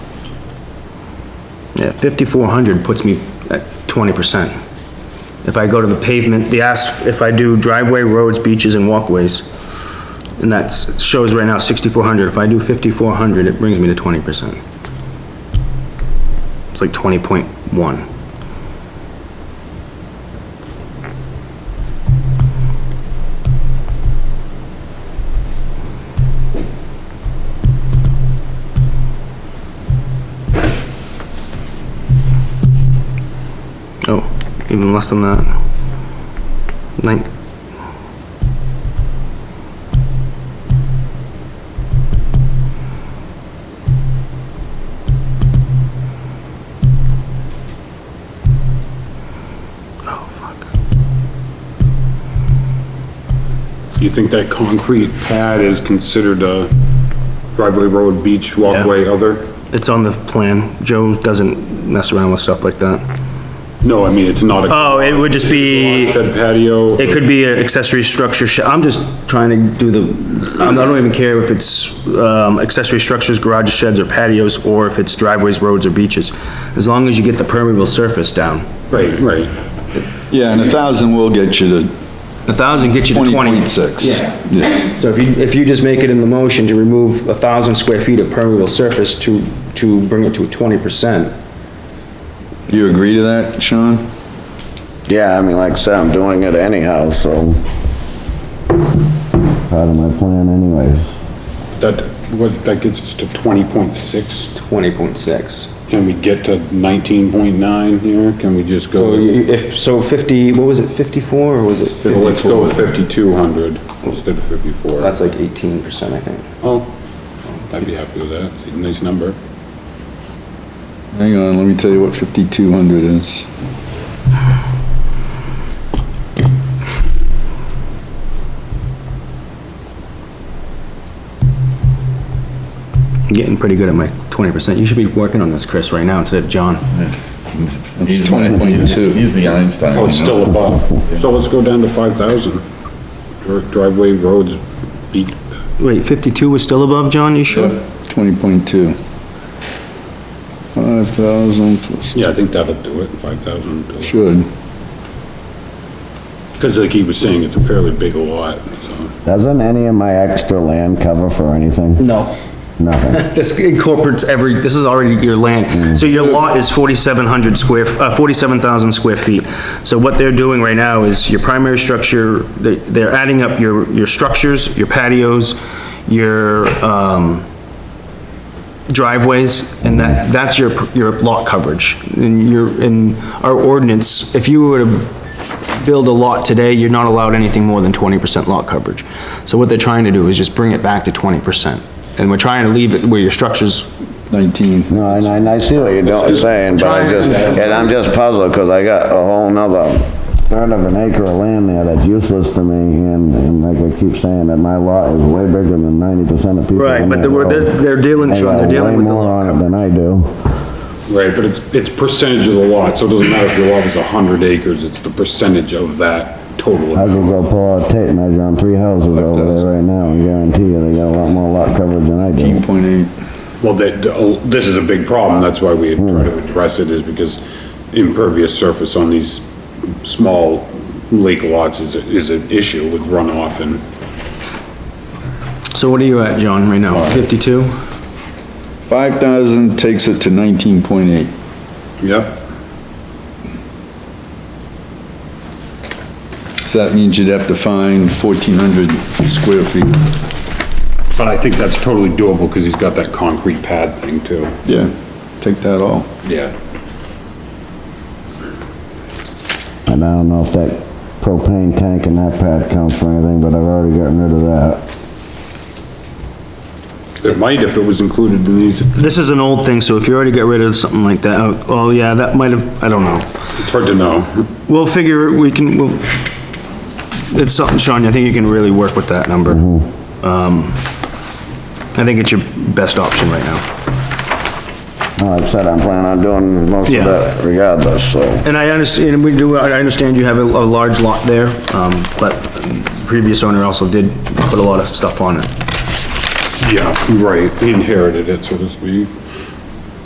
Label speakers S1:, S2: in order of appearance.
S1: Yeah, 5,400 puts me at 20%. If I go to the pavement, the asphalt, if I do driveway, roads, beaches, and walkways, and that shows right now 6,400, if I do 5,400, it brings me to 20%. It's like 20.1. Oh, even less than that. Nine. Oh, fuck.
S2: You think that concrete pad is considered a driveway, road, beach, walkway, other?
S1: It's on the plan. Joe doesn't mess around with stuff like that.
S2: No, I mean, it's not a
S1: Oh, it would just be,
S2: shed patio.
S1: it could be an accessory structure. sh- I'm just trying to do the, I don't even care if it's, um, accessory structures, garages, sheds, or patios, or if it's driveways, roads, or beaches. As long as you get the permeable surface down.
S2: Right, right.
S3: Yeah, and a thousand will get you to
S1: A thousand gets you to
S3: twenty
S1: twenty.
S3: point six.
S1: Yeah. So if you, if you just make it in the motion to remove a thousand square feet of permeable surface to, to bring it to twenty percent.
S3: You agree to that, Sean?
S4: Yeah, I mean, like I said, I'm doing it anyhow, so. Part of my plan anyways.
S2: That, what, that gets us to twenty point six.
S1: Twenty point six.
S2: Can we get to nineteen point nine here? Can we just
S1: So
S2: go?
S1: you- if, so fifty, what was it, fifty-four or was it
S2: Well,
S1: fifty?
S2: let's go with fifty-two hundred instead of fifty-four.
S1: That's like eighteen percent, I think.
S2: Oh, I'd be happy with that. It's a Nice number.
S3: Hang on, let me tell you what fifty-two hundred is.
S1: I'm Getting pretty good at my twenty percent. You should be working on this, Chris, right now instead of John.
S3: It's twenty point two.
S5: He's the Einstein.
S2: Oh, it's still above. So let's go down to five thousand. Driveway, roads, beach,
S1: Wait, fifty-two was still above, John, you sure?
S3: Twenty point two. Five thousand plus,
S2: Yeah, I think that'll do it, five thousand.
S3: should.
S2: Because like he was saying, it's a fairly big lot, so.
S4: Doesn't any of my extra land cover for anything?
S1: No.
S4: Nothing.
S1: This incorporates every, this is already your land, so your lot is 4,700 square, uh, 47,000 square feet. So what they're doing right now is your primary structure, they- they're adding up your, your structures, your patios, your, um, driveways, and that, that's your, your lot coverage. And your, in our ordinance, if you were to build a lot today, you're not allowed anything more than 20% lot coverage. So what they're trying to do is just bring it back to 20%. And we're trying to leave it where your structures,
S3: Nineteen.
S4: No, and I, and I see what you're doing, saying, but I just, and I'm just puzzled, cause I got a whole nother third of an acre of land there that's useless to me, and, and like I keep saying, that my lot is way bigger than ninety percent of people.
S1: Right,
S4: in
S1: but
S4: that
S1: they're- they're-
S4: road.
S1: they're dealing,
S4: They
S1: Sean, they're
S4: got
S1: dealing
S4: way
S1: with the
S4: more
S1: lot
S4: on it Than I do.
S2: Right, but it's, it's percentage of the lot, so it doesn't matter if your lot is a hundred acres, it's the percentage of that total.
S4: I
S2: amount.
S4: could go pull out a tape measure on three houses over there right now and guarantee you they got a lot more lot coverage than I do.
S3: Eighteen point eight.
S2: Well, that, oh, this is a big problem, that's why we try to address it, is because impervious surface on these small lake lots is, a- is an issue with runoff and
S1: so what are you at, John, right now? 52?
S3: Five thousand takes it to nineteen point eight.
S2: Yep.
S3: So that means you'd have to find fourteen hundred square feet.
S2: But I think that's totally doable, because he's got that concrete pad thing too.
S3: Yeah, take that all.
S2: Yeah.
S4: And I don't know if that propane tank and that pad counts for anything, but I've already gotten rid of that.
S2: It might if it was included in these,
S1: This is an old thing, so if you already got rid of something like that, oh, oh, yeah, that might have, I don't know.
S2: it's hard to know.
S1: We'll figure, we can, we'll, it's something, Sean, I think you can really work with that number. Um, I think it's your best option right now.
S4: No, Like I said, I'm planning on doing most
S1: Yeah.
S4: of that regardless, so.
S1: And I understand, we do, I understand you have a, a large lot there, um, but previous owner also did put a lot of stuff on it.
S2: Yeah, right, inherited it, so to speak.